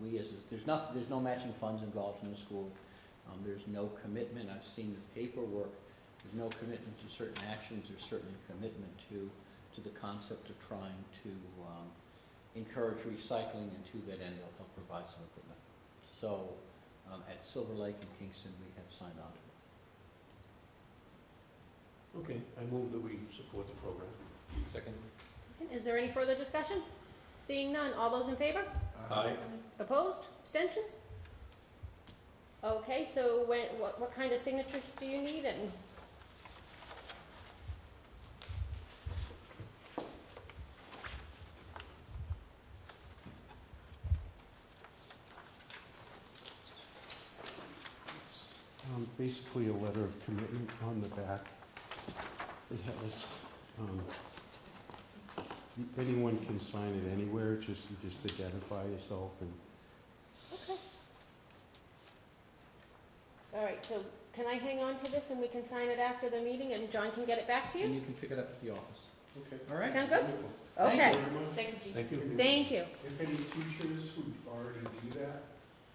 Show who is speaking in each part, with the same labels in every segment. Speaker 1: we as, a- there's nothing, there's no matching funds involved from the school. Um, there's no commitment, I've seen the paperwork, there's no commitment to certain actions, there's certainly commitment to, to the concept of trying to, um, encourage recycling and to that end, they'll help provide some equipment. So, um, at Silver Lake and Kingston, we have signed on to it.
Speaker 2: Okay, I move that we support the program.
Speaker 3: Second?
Speaker 4: Is there any further discussion? Seeing none, all those in favor?
Speaker 2: Aye.
Speaker 4: Opposed? Abstentions? Okay, so when, what, what kind of signatures do you need and?
Speaker 5: Um, Basically, a letter of commitment on the back. It has, um, anyone can sign it anywhere, it's just, you just identify yourself and
Speaker 4: Okay. All right, so can I hang on to this and we can sign it after the meeting and John can get it back to
Speaker 1: And
Speaker 4: you?
Speaker 1: you can pick it up at the office,
Speaker 6: Okay.
Speaker 1: all right?
Speaker 4: Sound good?
Speaker 6: Wonderful.
Speaker 4: Okay.
Speaker 6: Thank you very much.
Speaker 7: Thank you,
Speaker 2: Thank you.
Speaker 4: Thank you.
Speaker 6: If any teachers who already do that,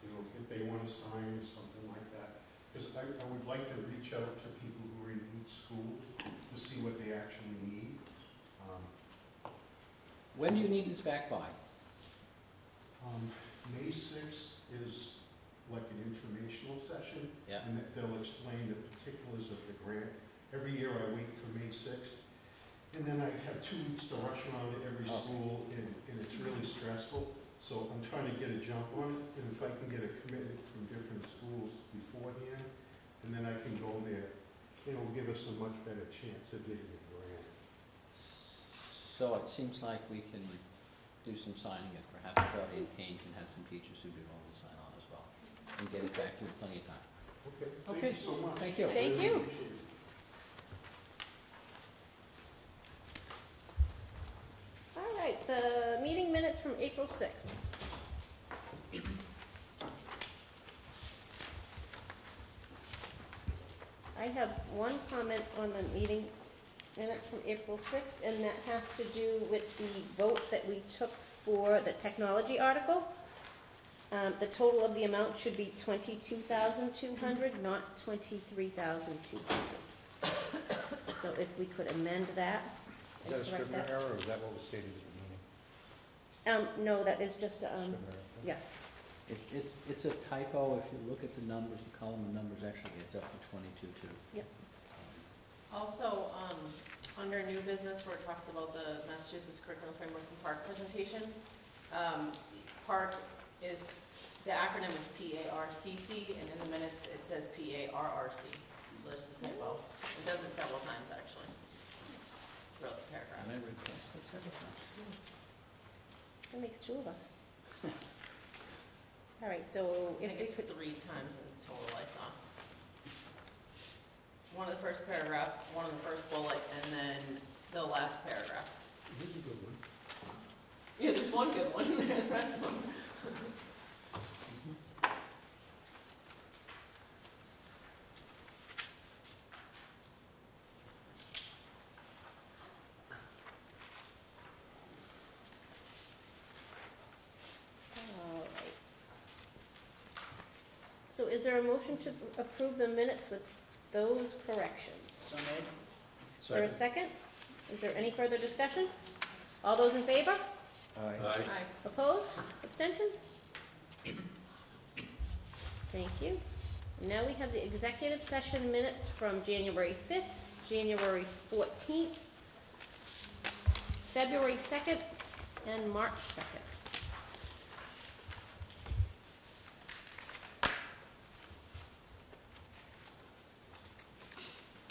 Speaker 6: you know, if they want to sign or something like that, because I, I would like to reach out to people who are in each school to see what they actually need. Um,
Speaker 1: When do you need this back by?
Speaker 6: um, May sixth is like an informational session,
Speaker 1: Yeah.
Speaker 6: and that they'll explain the particulars of the grant. Every year I wait for May sixth, and then I have two weeks to rush around to every
Speaker 1: Okay.
Speaker 6: school, and, and it's really stressful. So I'm trying to get a jump on it, and if I can get a commitment from different schools beforehand, and then I can go there, it'll give us a much better chance of getting the grant.
Speaker 1: So it seems like we can do some signing, and perhaps Claudia Kane can have some teachers who do all the sign on as well, and get it back to you in plenty of time.
Speaker 6: Okay,
Speaker 1: Okay,
Speaker 6: thank you so much.
Speaker 1: thank you.
Speaker 6: I
Speaker 4: Thank
Speaker 6: really
Speaker 4: you.
Speaker 6: appreciate it.
Speaker 4: All right, the meeting minutes from April sixth. I have one comment on the meeting minutes from April sixth, and that has to do with the vote that we took for the technology article. Um, the total of the amount should be twenty-two thousand two hundred, not twenty-three thousand two hundred. So if we could amend that
Speaker 3: Is that a
Speaker 4: and correct
Speaker 3: Scrivener
Speaker 4: that.
Speaker 3: error, or is that what was stated at
Speaker 4: Um, no, that is just,
Speaker 3: the
Speaker 4: um,
Speaker 3: meeting? Scrivener error.
Speaker 4: yes.
Speaker 1: It- It's, it's a typo, if you look at the numbers, the column of numbers actually adds up to twenty-two, too.
Speaker 4: Yep.
Speaker 7: Also, um, under new business where it talks about the Massachusetts Curriculum Frameworks and Park presentation, um, park is, the acronym is P-A-R-C-C, and in the minutes, it says P-A-R-R-C. So there's a typo. It does it several times, actually, throughout the paragraph.
Speaker 1: And Um, I read that stuff several times.
Speaker 4: That makes two of us. All right, so
Speaker 7: I
Speaker 4: if
Speaker 7: think
Speaker 4: we
Speaker 7: it's
Speaker 4: could,
Speaker 7: three times in total I saw. One of the first paragraph, one of the first bullet, and then the last paragraph.
Speaker 2: Here's a good one.
Speaker 7: Yeah, there's one good one, the rest of them.
Speaker 4: all right. So is there a motion to approve the minutes with those corrections? Is there a second? Is there any further discussion? All those in favor?
Speaker 3: Aye.
Speaker 2: Aye.
Speaker 7: Aye.
Speaker 4: Opposed? Abstentions? Thank you. Now we have the executive session minutes from January 5th, January 14th, February 2nd, and March 2nd.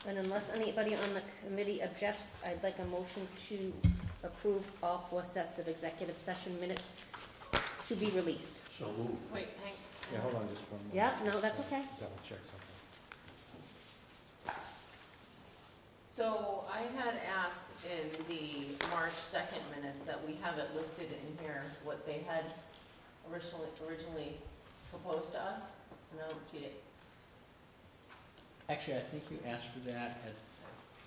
Speaker 4: And unless anybody on the committee objects, I'd like a motion to approve all four sets of executive session minutes to be released.
Speaker 2: So moved.
Speaker 7: Wait, hang.
Speaker 3: Yeah, hold on just one moment.
Speaker 4: Yeah, no, that's okay.
Speaker 3: Double check something.
Speaker 7: So I had asked in the March second minutes that we have it listed in here, what they had originally, originally proposed to us, and I don't see it.
Speaker 1: Actually, I think you asked for that at,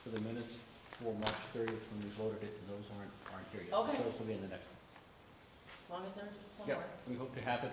Speaker 1: for the minutes for March thirtieth when we voted it, and those aren't, aren't here yet.
Speaker 7: Okay.
Speaker 1: Those will be in the next.
Speaker 7: As long as there's
Speaker 1: Yeah,
Speaker 7: somewhere.
Speaker 1: we hope to have it